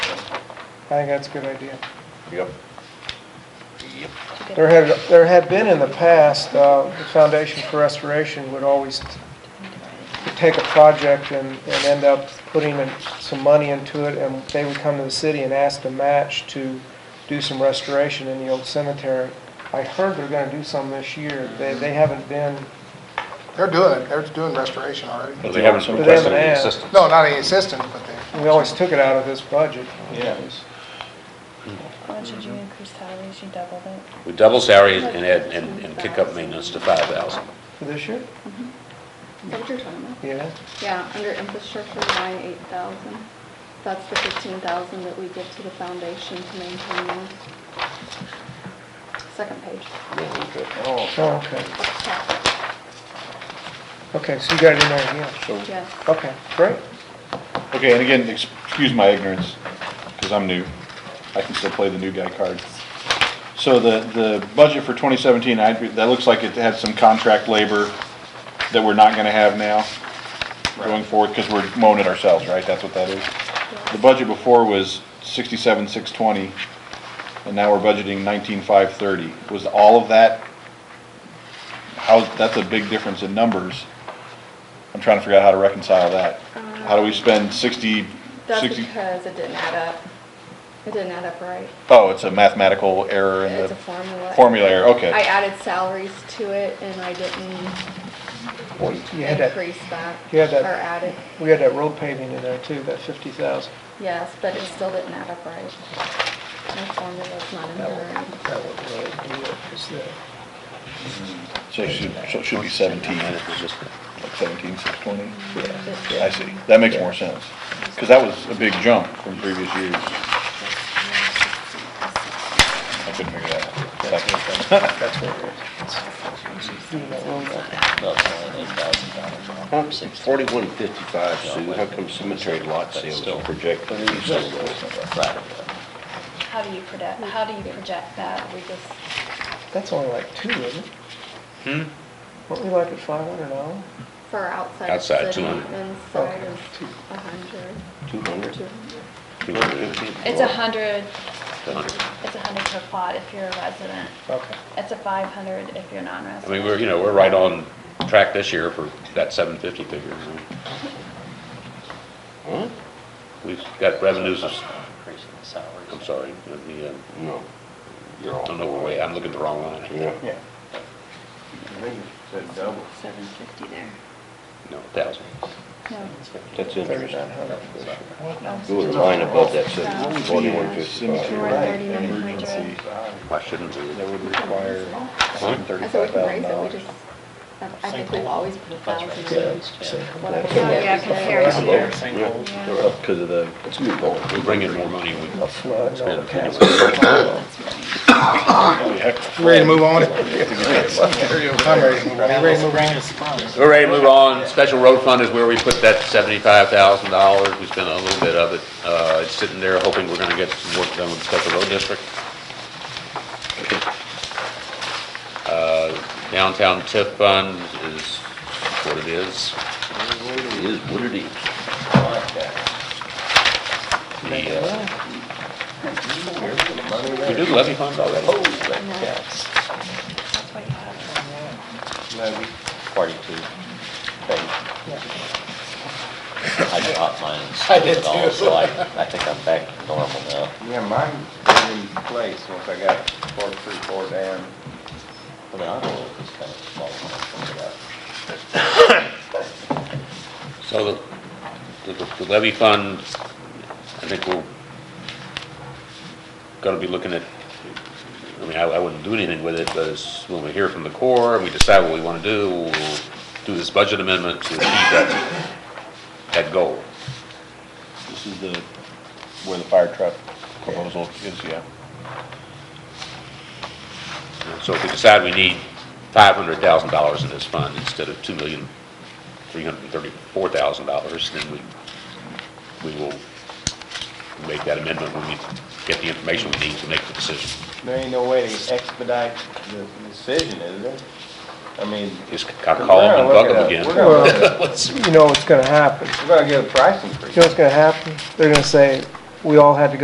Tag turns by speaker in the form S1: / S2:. S1: I think that's a good idea.
S2: Yep.
S1: There had, there had been in the past, uh, the Foundation for Restoration would always t- take a project and, and end up putting in some money into it, and they would come to the city and ask to match to do some restoration in the old cemetery. I heard they're gonna do some this year. They, they haven't been,
S3: They're doing it, they're doing restoration already.
S2: But they haven't
S1: But they
S2: requested
S1: haven't
S2: any
S1: asked.
S2: assistance.
S3: No, not any assistance, but they,
S1: we always took it out of this budget.
S4: How much did you increase salaries? You doubled it.
S2: We double salaries and add, and and kick up maintenance to five thousand.
S1: For this year?
S5: Is that what you're talking about?
S1: Yeah.
S5: Yeah, under infrastructure, line eight thousand. That's the fifteen thousand that we give to the foundation to maintain them. Second page.
S1: Oh, okay.
S5: Yes.
S1: Okay, so you got it in there, yeah. Okay, great.
S6: Okay, and again, excuse my ignorance, because I'm new. I can still play the new guy card. So the, the budget for 2017, I, that looks like it had some contract labor that we're not going to have now going forward, because we're mowing it ourselves, right? That's what that is. The budget before was 67, 620, and now we're budgeting 19, 530. Was all of that, how, that's a big difference in numbers. I'm trying to figure out how to reconcile that. How do we spend 60,
S5: Uh, That's
S6: 60
S5: because it didn't add up. It didn't add up right.
S6: oh, it's a mathematical error in
S5: It's a
S6: the
S5: formula.
S6: formula error,
S5: I
S6: okay.
S5: added salaries to it and I didn't
S1: You had that,
S5: increase that.
S1: you had that-
S5: Or add it,
S1: we had that road paving in there too, that fifty thousand.
S5: yes, but it still didn't add up right. My formula's not in there.
S1: That would really be it, is that.
S6: So it should, so it should be
S2: And
S6: 17, like
S2: it was just,
S6: 17, 620?
S5: It's-
S6: I see, that makes more sense, because that was a big jump from previous years. I couldn't figure that out. Second.
S1: That's what it
S7: Forty-one fifty-five, Sue, how come cemetery lot sales are projected to be so low?
S4: How do you project, how do you project that? We just,
S1: is. That's only like two, isn't it? Hmm? Weren't we like at five hundred dollars?
S5: For outside. of
S2: Outside,
S5: city,
S2: 200.
S5: Inside is
S1: Two.
S5: a hundred.
S7: Two hundred?
S5: Two.
S7: Two hundred and fifty?
S4: it's a hundred, it's a hundred per plot if you're a resident.
S1: Okay.
S4: It's a five hundred if you're
S2: I
S4: non-resident.
S2: mean, we're, you know, we're right on track this year for that seven fifty figure. you know.
S7: Huh?
S2: We've got revenues of,
S8: Increasing the salaries.
S2: I'm sorry, the, uh,
S7: No. You're
S2: I
S7: off.
S2: don't know where we, I'm looking at the wrong line.
S7: Yeah.
S1: Yeah.
S5: Seven fifty there.
S2: No, thousand.
S4: No.
S7: That's interesting.
S1: Thirty-nine hundred.
S7: There was a line above that said forty-one
S6: Cemetery
S7: fifty-five.
S6: right, and emergency,
S2: Why shouldn't we?
S6: that would require
S5: I said we can raise it, we
S6: $35,000.
S5: just, I I think we've always put a thousand in. Whatever we
S7: Yeah,
S5: get, we
S4: compare it
S5: get.
S4: to-
S7: Yeah, They're up because of the, it's new ball.
S2: We bring in more money, we
S1: A flood, no,
S2: spend
S1: okay.
S2: anyway.
S3: ready to move on? I'm ready to move on.
S1: Ready to move on?
S2: We're ready to move on. Special road fund is where we put that seventy-five thousand dollars. We spent a little bit of it. Uh, it's sitting there hoping we're gonna get some work done with the special road district. Uh, downtown TIF fund is what it is.
S7: It is what it is.
S2: The, uh, we did levy funds already.
S4: That's what you have.
S8: Forty-two. I dropped mine.
S3: I did
S8: at all,
S3: too.
S8: Oh, So I, I think I'm back to normal now.
S9: Yeah, mine was in place once I got four, three, four down.
S8: I mean, I don't know if it's kind of small when I think about it.
S2: So the, the- the levy fund, I think we're gonna be looking at, I mean, I, I wouldn't do anything with it, but it's when we hear from the Corps and we decide what we wanna do, we'll do this budget amendment to achieve that, that goal.
S6: This is the, where the fire truck proposal is, yeah.
S2: So if we decide we need five hundred thousand dollars in this fund instead of two million, three hundred and thirty-four thousand dollars, then we, we will make that amendment when we get the information we need to make the decision.
S9: There ain't no way to expedite the decision, is there? I mean,
S2: Just c- call them and bug them again.
S9: We're gonna look it up.
S2: Let's-
S1: You know what's gonna happen.
S9: we're gonna get a price
S1: You
S9: increase.
S1: know what's gonna happen? They're gonna say, we all had to go